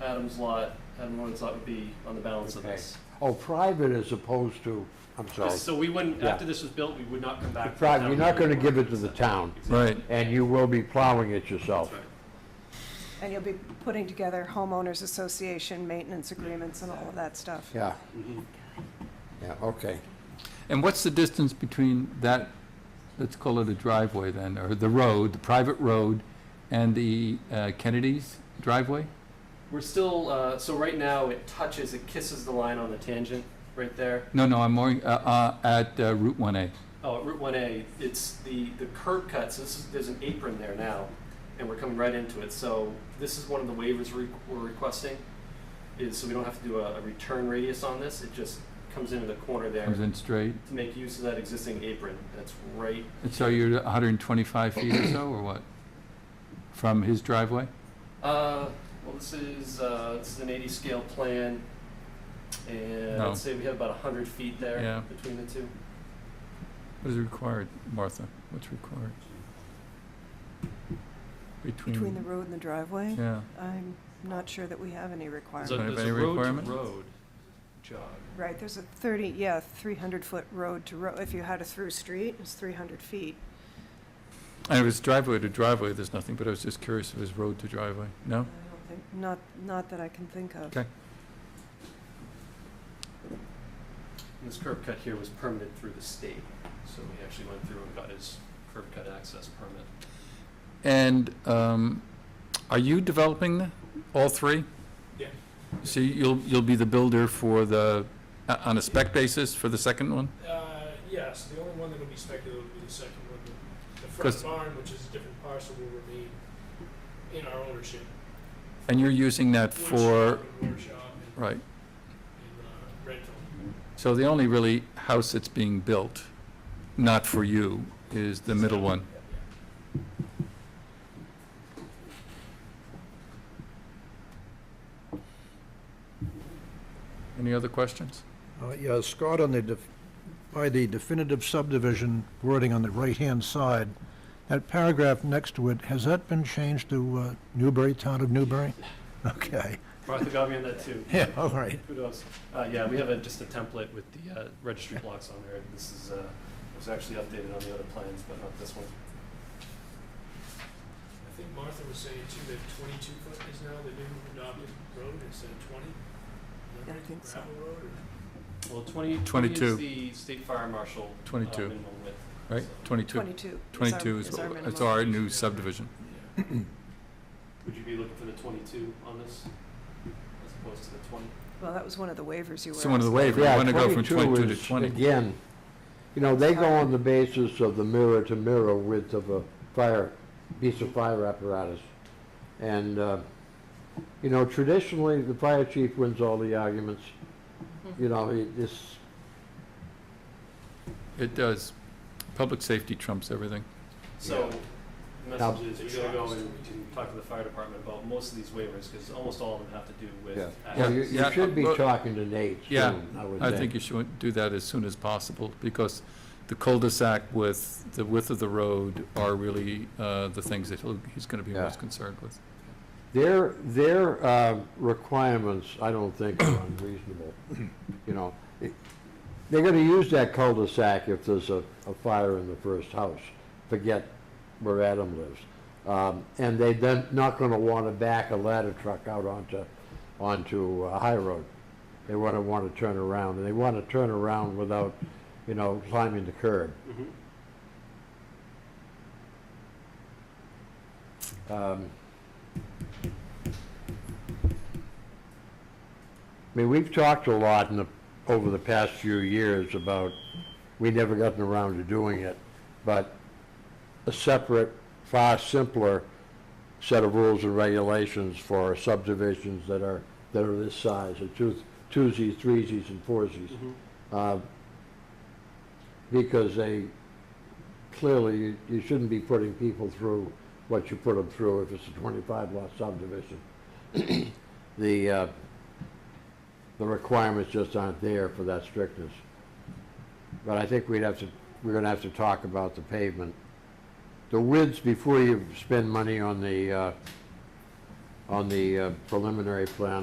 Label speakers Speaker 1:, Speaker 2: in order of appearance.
Speaker 1: Adam's lot, Adam Warren's lot would be on the balance of this.
Speaker 2: Oh, private as opposed to, I'm sorry.
Speaker 1: Just So we wouldn't,
Speaker 2: Yeah.
Speaker 1: after this was built, we would not come back. to the
Speaker 2: Private,
Speaker 1: town
Speaker 2: you're not gonna
Speaker 1: meeting.
Speaker 2: give it to the town,
Speaker 3: Right.
Speaker 2: and you will be plowing it yourself.
Speaker 1: That's right.
Speaker 4: And you'll be putting together homeowners association maintenance agreements and all of that stuff.
Speaker 2: Yeah. Yeah, okay.
Speaker 3: And what's the distance between that, let's call it a driveway then, or the road, the private road, and the uh, Kennedy's driveway?
Speaker 1: We're still, uh, so right now it touches, it kisses the line on the tangent right there.
Speaker 3: No, no, I'm more, uh, uh, at uh, Route 1A.
Speaker 1: Oh, at Route one A, it's the, the curb cuts, this is, there's an apron there now, and we're coming right into it, so this is one of the waivers we- we're requesting, is so we don't have to do a, a return radius on this, it just comes into the corner there
Speaker 3: Comes
Speaker 1: to
Speaker 3: in straight.
Speaker 1: make use of that existing apron, that's right,
Speaker 3: And so you're 125 feet or so, or what? From his driveway?
Speaker 1: uh, well, this is, uh, this is an eighty scale plan, and
Speaker 3: No.
Speaker 1: I'd say we have about hundred feet
Speaker 3: Yeah.
Speaker 1: there between the two.
Speaker 3: What is required, Martha? What's required? Between.
Speaker 4: Between the road and the driveway,
Speaker 3: Yeah.
Speaker 4: I'm not sure that we have any requirement.
Speaker 3: So- Don't have any requirement?
Speaker 5: road jog.
Speaker 4: Right, there's a 30, yeah, 300-foot road to road, if you had a through street, it's 300 feet.
Speaker 3: And if it's driveway to driveway, there's nothing, but I was just curious if it was road to driveway. No?
Speaker 4: I don't think, not, not that I can think of.
Speaker 3: Okay.
Speaker 1: And This curb cut here was permitted through the state, so he actually went through and got his curb cut access permit.
Speaker 3: And um, are you developing the- all three?
Speaker 1: Yeah.
Speaker 3: So you'll, you'll be the builder for the, uh, on a spec basis for the second one?
Speaker 5: Uh, yes, the only one that'll be speculative will be the second one. The- The
Speaker 3: 'Cause-
Speaker 5: front barn, which is a different parcel, will remain in our ownership.
Speaker 3: And you're using that
Speaker 5: Wood
Speaker 3: for,
Speaker 5: shop and Workshop and,
Speaker 3: right,
Speaker 5: and, uh, rental.
Speaker 3: so the only really house that's being built, not for you, is the middle one. Any other questions?
Speaker 6: Uh, Yeah, Scott, on the, def- by the definitive subdivision wording on the right-hand side, that paragraph next to it, has that been changed to uh, Newbury, Town of Newbury? Okay,
Speaker 1: Martha got me on that too.
Speaker 6: yeah, all right.
Speaker 1: Kudos. Uh, yeah, we have a, just a template with the, uh, registry blocks on there. This is, uh, it was actually updated on the other plans, but not this one.
Speaker 5: I think Martha was saying too that twenty-two foot is now the new Nobby road instead of twenty. Is that
Speaker 4: Yeah, I
Speaker 5: right?
Speaker 4: think so.
Speaker 5: Gravel road or?
Speaker 1: Well, twenty, twenty is
Speaker 3: 22.
Speaker 1: the state fire marshal. uh,
Speaker 3: 22.
Speaker 1: minimum width.
Speaker 3: Right,
Speaker 1: So-
Speaker 3: 22?
Speaker 4: 22. is our-
Speaker 3: 22 is,
Speaker 4: our
Speaker 3: what- it's
Speaker 4: minimum.
Speaker 3: our new subdivision.
Speaker 1: Would you be looking for the twenty-two on this as opposed to the twenty?
Speaker 4: Well, that was one of the waivers you were
Speaker 3: So one of the
Speaker 4: asking.
Speaker 3: waivers, we
Speaker 2: Yeah,
Speaker 3: want to go from 22 to
Speaker 2: is,
Speaker 3: 20.
Speaker 2: Again, you know, they go on the basis of the mirror-to-mirror width of a fire, piece of fire apparatus. And, uh, you know, traditionally, the fire chief wins all the arguments. You know, it- it's,
Speaker 3: It does. Public safety trumps everything.
Speaker 1: So, the
Speaker 2: Now-
Speaker 1: message is, you gotta go and talk to the fire department about most of these waivers, because almost all of them have to do with.
Speaker 2: Yeah.
Speaker 3: Yeah,
Speaker 2: well, you
Speaker 1: access.
Speaker 2: you should be
Speaker 3: yeah, uh,
Speaker 2: talking to Nate soon,
Speaker 3: Yeah,
Speaker 2: I would
Speaker 3: I
Speaker 2: think.
Speaker 3: think you should do that as soon as possible, because the cul-de-sac with the width of the road are really uh, the things that he'll- he's going to be
Speaker 2: Yeah.
Speaker 3: most concerned with.
Speaker 2: Their, their uh, requirements, I don't think are unreasonable, you know. It- They're gonna use that cul-de-sac if there's a, a fire in the first house, forget where Adam lives. Um, And they then not gonna wanna back a ladder truck out onto, onto a High Road. They wanna, wanna turn around, and they wanna turn around without, you know, climbing the curb.
Speaker 1: Mhm.
Speaker 2: Um, I mean, we've talked a lot in the, over the past few years about, we never gotten around to doing it, but a separate, far simpler set of rules and regulations for subdivisions that are, that are this size, or two, twosies, threesies, and foursies.
Speaker 1: Mhm.
Speaker 2: uh, Because they, clearly, you- you shouldn't be putting people through what you put them through if it's a 25 lot subdivision. The, uh, the requirements just aren't there for that strictness. But I think we'd have to, we're gonna have to talk about the pavement. The widths, before you spend money on the, uh, on the uh, preliminary plan,